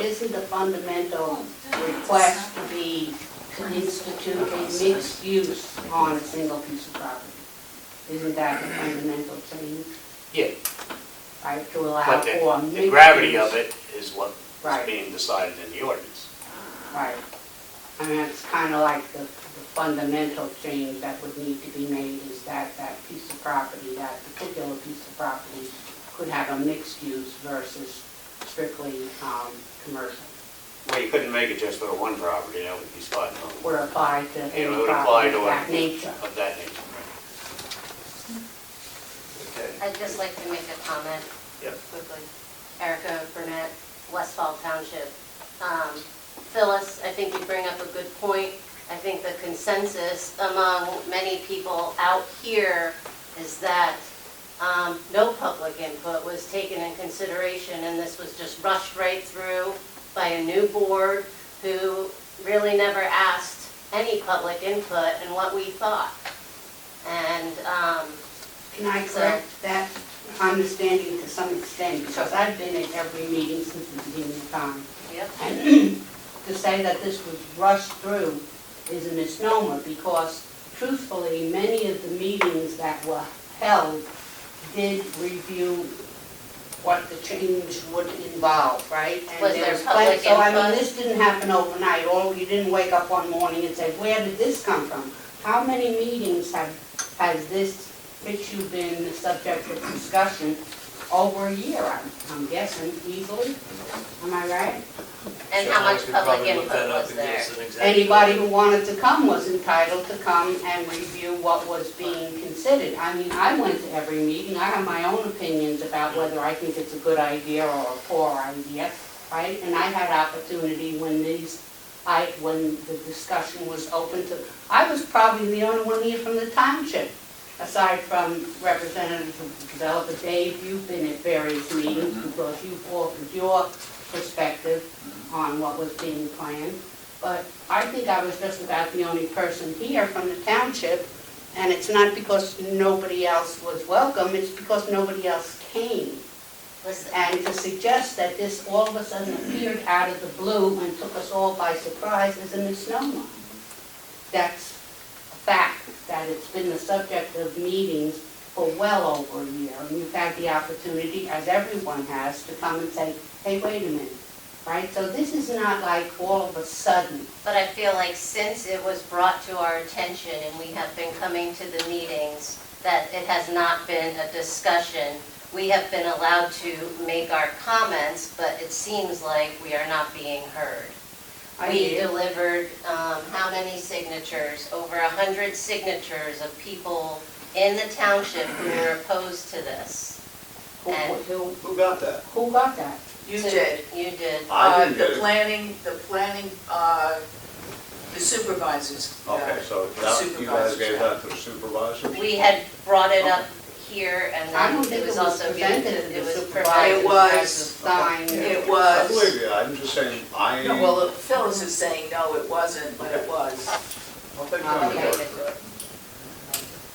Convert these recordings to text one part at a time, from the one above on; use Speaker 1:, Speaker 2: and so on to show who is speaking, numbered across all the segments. Speaker 1: isn't the fundamental request to be, to institute a mixed use on a single piece of property? Isn't that the fundamental change?
Speaker 2: Yeah.
Speaker 1: Right, to allow
Speaker 2: But
Speaker 1: for
Speaker 2: the-
Speaker 1: mixed
Speaker 2: the gravity
Speaker 1: use.
Speaker 2: of it is what is
Speaker 1: Right,
Speaker 2: being decided in the ordinance.
Speaker 1: right. I mean, it's kind of like the the fundamental change that would need to be made is that that piece of property, that particular piece of property could have a mixed use versus strictly um, commercial.
Speaker 2: Well, you couldn't make it just for one property, that would be spot on,
Speaker 1: would apply to
Speaker 2: It
Speaker 1: any
Speaker 2: would
Speaker 1: property
Speaker 2: apply to
Speaker 1: of
Speaker 2: a-
Speaker 1: that nature.
Speaker 2: of that nature, right? Okay.
Speaker 3: I'd just like to make a comment.
Speaker 2: Yep.
Speaker 3: Quickly. Erica Burnett, Westfall Township. Um, Phyllis, I think you bring up a good point. I think the consensus among many people out here is that um, no public input was taken in consideration, and this was just rushed right through by a new board who really never asked any public input and what we thought. And, um,
Speaker 1: Can I
Speaker 3: So-
Speaker 1: correct that understanding to some extent? Because I've been at every meeting since the beginning of time.
Speaker 3: yep,
Speaker 1: And to say that this was rushed through is a misnomer because truthfully, many of the meetings that were held did review what the change would involve, right? And
Speaker 3: Was there
Speaker 1: plen-
Speaker 3: public
Speaker 1: So I mean,
Speaker 3: input?
Speaker 1: this didn't happen overnight, or you didn't wake up one morning and say, where did this come from? How many meetings have, has this issue been the subject of discussion over a year, I'm- I'm guessing, easily? Am I right?
Speaker 3: and how much public input was there?
Speaker 1: Anybody who wanted to come was entitled to come and review what was being considered. I mean, I went to every meeting, I have my own opinions about whether I think it's a good idea or a poor idea, right? And I had opportunity when these, I, when the discussion was open to, I was probably the only one here from the township, aside from Representative of Developer Dave, you've been at various meetings because you've offered your perspective on what was being planned. But I think I was just about the only person here from the township, and it's not because nobody else was welcome, it's because nobody else came.
Speaker 3: Listen,
Speaker 1: And to suggest that this all of a sudden appeared out of the blue and took us all by surprise is a misnomer. That's a fact, that it's been the subject of meetings for well over a year, and you've had the opportunity, as everyone has, to come and say, hey, wait a minute, right? So this is not like all of a sudden,
Speaker 3: But I feel like since it was brought to our attention and we have been coming to the meetings, that it has not been a discussion. We have been allowed to make our comments, but it seems like we are not being heard.
Speaker 1: I
Speaker 3: We
Speaker 1: hear.
Speaker 3: delivered, um, how many signatures? Over a hundred signatures of people in the township who were opposed to this.
Speaker 1: Who- who,
Speaker 4: Who got that?
Speaker 1: who got that?
Speaker 5: You
Speaker 3: So
Speaker 5: did.
Speaker 3: You did.
Speaker 4: I didn't
Speaker 5: Uh,
Speaker 4: get
Speaker 5: The
Speaker 4: it.
Speaker 5: planning, the planning, uh, the supervisors. uh,
Speaker 4: Okay, so
Speaker 5: The
Speaker 4: that, you guys
Speaker 5: supervisors,
Speaker 4: gave
Speaker 5: yeah.
Speaker 4: that to the supervisors?
Speaker 3: We had brought it up here and
Speaker 1: I don't
Speaker 3: then
Speaker 1: think
Speaker 3: it was also given
Speaker 1: presented
Speaker 3: to,
Speaker 1: to
Speaker 3: it
Speaker 1: the
Speaker 3: was
Speaker 1: supervisors
Speaker 5: It
Speaker 3: provided.
Speaker 5: was.
Speaker 1: as a sign.
Speaker 5: It
Speaker 4: I
Speaker 5: was,
Speaker 4: believe you, I'm just saying, I.
Speaker 5: no, well, Phyllis is saying, no, it wasn't, but it was.
Speaker 4: I'll take you on your word
Speaker 3: Okay.
Speaker 4: for that.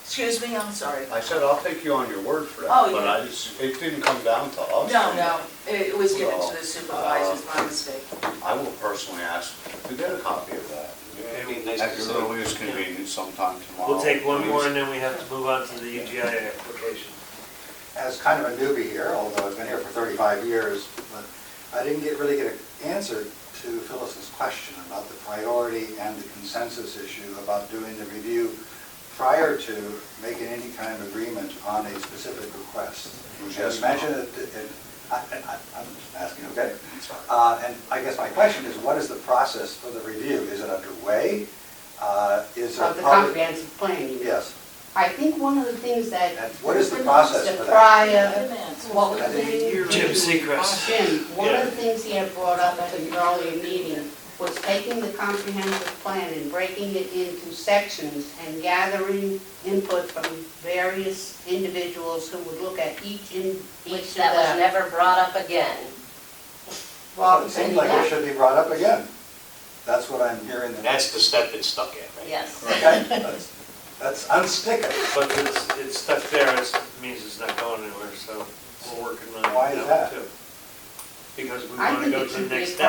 Speaker 5: Excuse me, I'm sorry.
Speaker 4: I said, I'll take you on your word for that,
Speaker 5: Oh,
Speaker 4: but
Speaker 5: yeah.
Speaker 4: I just, it didn't come down to us.
Speaker 5: No, no, it it was given
Speaker 4: Well,
Speaker 5: to the supervisors, my mistake.
Speaker 4: I will personally ask to get a copy of that.
Speaker 6: It'd be nice
Speaker 4: At
Speaker 6: to
Speaker 4: your
Speaker 6: see.
Speaker 4: earliest convenience sometime tomorrow.
Speaker 7: We'll take one more
Speaker 4: please.
Speaker 7: and then we have to move on to the UGI application.
Speaker 6: As kind of a newbie here, although I've been here for 35 years, but I didn't get, really get an answer to Phyllis's question about the priority and the consensus issue about doing the review prior to making any kind of agreement on a specific request.
Speaker 4: It was yes
Speaker 6: And you
Speaker 4: or no.
Speaker 6: mentioned it, it- I, I- I'm asking, okay? Uh, And I guess my question is, what is the process for the review? Is it underway? Uh, Is there
Speaker 1: Of the
Speaker 6: public-
Speaker 1: comprehensive plan, you mean?
Speaker 6: Yes.
Speaker 1: I think one of the things that.
Speaker 6: And what is the process for
Speaker 1: The
Speaker 6: that?
Speaker 1: prior, what was
Speaker 6: That
Speaker 1: the
Speaker 6: is
Speaker 1: name?
Speaker 6: yearly. Jim
Speaker 7: Seacrest.
Speaker 1: Jim, one
Speaker 7: Yeah.
Speaker 1: of the things he had brought up at an earlier meeting was taking the comprehensive plan and breaking it into sections and gathering input from various individuals who would look at each in, each
Speaker 3: Which
Speaker 1: of
Speaker 3: that was
Speaker 1: the.
Speaker 3: never brought up again.
Speaker 6: Well, it seems like it should be brought up again. That's what I'm hearing. that-
Speaker 2: That's the step it's stuck at, right?
Speaker 3: Yes.
Speaker 6: Okay, that's, that's unstick it.
Speaker 7: But it's, it's stuck there, it means it's not going anywhere, so we're working on
Speaker 6: Why is
Speaker 7: that
Speaker 6: that?
Speaker 7: too. Because we
Speaker 1: I
Speaker 7: want to
Speaker 1: think
Speaker 7: go
Speaker 1: it
Speaker 7: to
Speaker 1: should
Speaker 7: the
Speaker 1: be a
Speaker 7: next step.